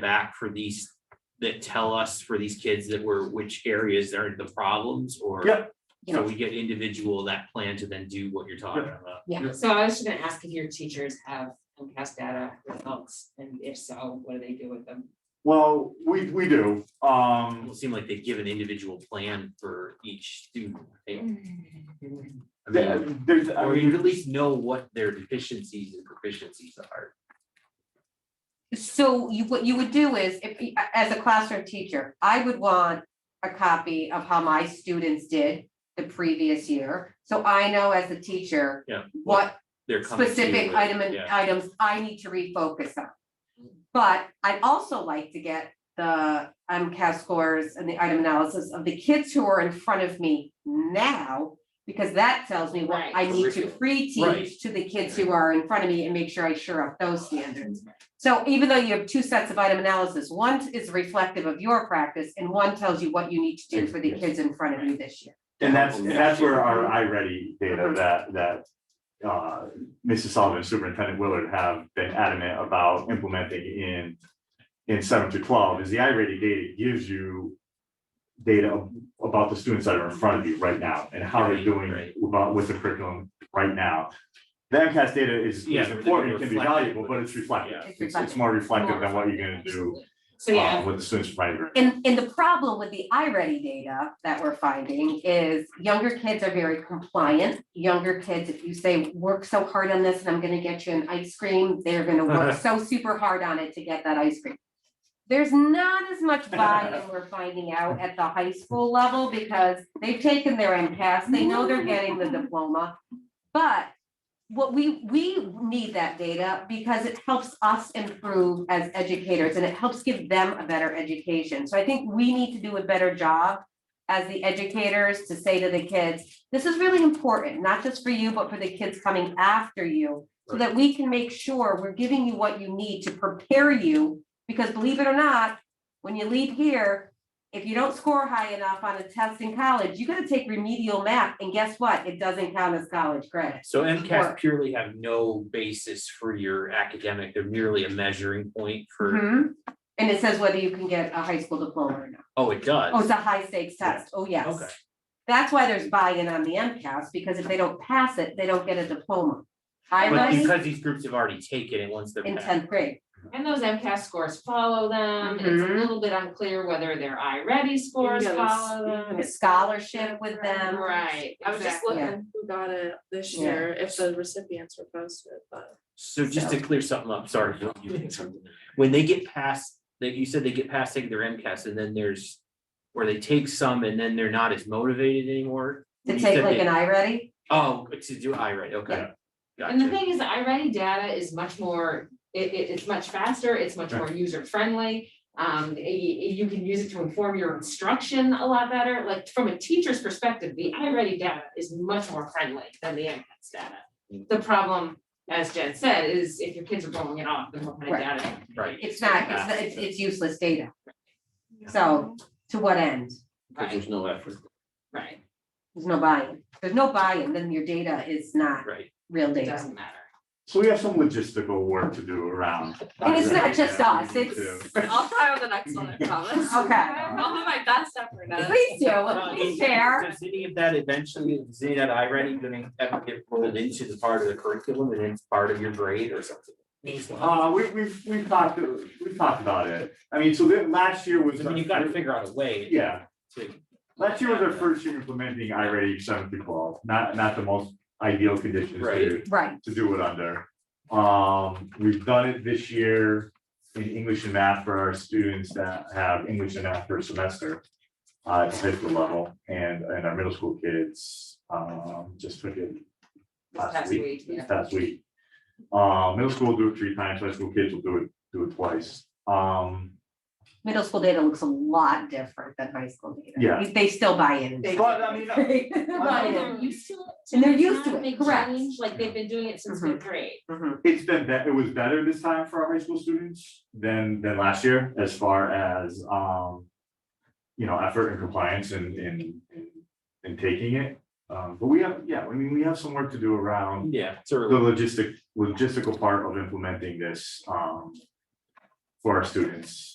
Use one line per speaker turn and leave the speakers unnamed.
back for these, that tell us for these kids that were, which areas are the problems or?
Yep.
So we get individual that plan to then do what you're talking about.
Yeah.
Yeah, so I was just gonna ask if your teachers have MCAS data results, and if so, what do they do with them?
Well, we, we do,
It
um,
will seem like they give an individual plan for each student. right?
Mm.
I
there-
mean,
there's, I
Or you at
mean,
least know what their deficiencies and proficiencies are.
So you, what you would do is, if, you- as a classroom teacher, I would want a copy of how my students did the previous year. So I know as a teacher.
Yeah.
What
They're coming to you
specific
with-
item and
yeah. Mm.
items I need to refocus on. But I'd also like to get the MCAS scores and the item analysis of the kids who are in front of me now. Because that tells me what I
Right.
need
Curriculum.
to
Right.
pre-teach to the kids who are in front of me and make sure I sure up those standards. So even though you have two sets of item analysis, one is reflective of your practice and one tells you what you need to do for the kids in front of you this year.
and that's, and that's where our iReady data
Mhm.
that, that. Uh, Mrs. Sullivan, Superintendent Willard have been adamant about implementing in. In seven to twelve is the iReady data gives you. Data about the students that are in front of you right now and how they're
Right,
doing
right.
about with the curriculum right now. The MCAS data is,
Yeah, but
is
they're
important, it can be
reflective,
valuable,
but
but it's
it's-
reflective,
yeah.
It's
it's, it's more reflective than what you're gonna do.
So,
uh,
yeah,
With the students right here.
And, and the problem with the iReady data that we're finding is younger kids are very compliant. Younger kids, if you say, work so hard on this and I'm gonna get you an ice cream, they're gonna work so super hard on it to get that ice cream. There's not as much buy-in we're finding out at the high school level because they've taken their MCAS, they know they're getting the diploma. But what we, we need that data because it helps us improve as educators and it helps give them a better education. So I think we need to do a better job as the educators to say to the kids, this is really important, not just for you, but for the kids coming after you. So that we can make sure we're giving you what you need to prepare you, because believe it or not, when you leave here, if you don't score high enough on a test in college, you gotta take remedial math, and guess what? It doesn't count as college credit.
So MCAS
Work.
purely have no basis for your academic, they're merely a measuring point for,
Mhm. And it says whether you can get a high school diploma or not.
oh, it does.
Oh, it's a high stakes test. Oh, yes.
Okay.
That's why there's buy-in on the MCAS, because if they don't pass it, they don't get a diploma. I
But
ready
because these groups have already taken it once they're.
in
passed.
tenth grade.
Um,
and those MCAS scores follow them, it's a
Mm-hmm.
Mhm.
little bit unclear whether their iReady scores
Yeah, those-
follow them.
A scholarship with them.
Right,
I was just
exactly.
looking who got it this
Yeah.
year, if the recipients were posted, but.
So just to clear something up, sorry, Bill, you had something. when they get past, that you said they get past taking their MCAS and then there's. Or they take some and then they're not as motivated anymore.
To
You
take
said
like
they-
an I ready,
Oh, to do I right, okay.
And the
Gotcha.
thing is, iReady data is much more, it, it, it's much faster, it's much more user friendly. Um, y- y- you can use it to inform your instruction a lot better, like from a teacher's perspective, the iReady data is much more friendly than the MCAS data.
Mm.
The problem, as Jen said, is if your kids are blowing it off, then what kind of
Right.
data?
Right.
it's not, it's, not- it's, it's useless data. So, to what end?
Because
Right,
there's no effort,
right,
There's no buy-in. There's no buy-in, then your data is not
right?
real
it
data.
doesn't matter.
So we have some logistical work to do around.
And it's not just
Yeah, we
us,
need
it's-
to.
I'll try on the next one, I promise.
Okay.
I'll do my best effort at it.
Please do, please share.
Uh, Does any of that eventually, is any of that I ready gonna ever get rolled into the part of the curriculum and it's part of your grade or something?
Uh, we, we've, we've talked, we've talked about it. I mean, so that last year was.
I mean, you've got to figure out a way.
Yeah,
to-
last year was our first year implementing iReady seven through twelve, not, not the most ideal conditions to,
Right.
Right,
to do it under. Um, we've done it this year in English and math for our students that have English and math for a semester. Uh, at the high school level and, and our middle school kids, um, just took it
This
last
past
week,
week,
this
yeah.
past week. Uh, middle school will do it three times, high school kids will do it, do it twice. Um,
middle school data looks a lot different than high school data.
Yeah.
They- They Uh-huh. still buy in.
They-
but I mean, uh,
And
Buy-in.
they're used to it.
And they're used to
It's not a
it,
big
correct.
change, Like they've been doing it since
Mhm.
fifth grade.
Mhm.
it's been, bet- it was better this time for our high school students than, than last year as far as, um, you know, effort and compliance and, and, and- and taking it. Um, but we have, yeah, I mean, we have some work to do around
Yeah, it's
the
early.
logistic, logistical part of implementing this, um, for our students.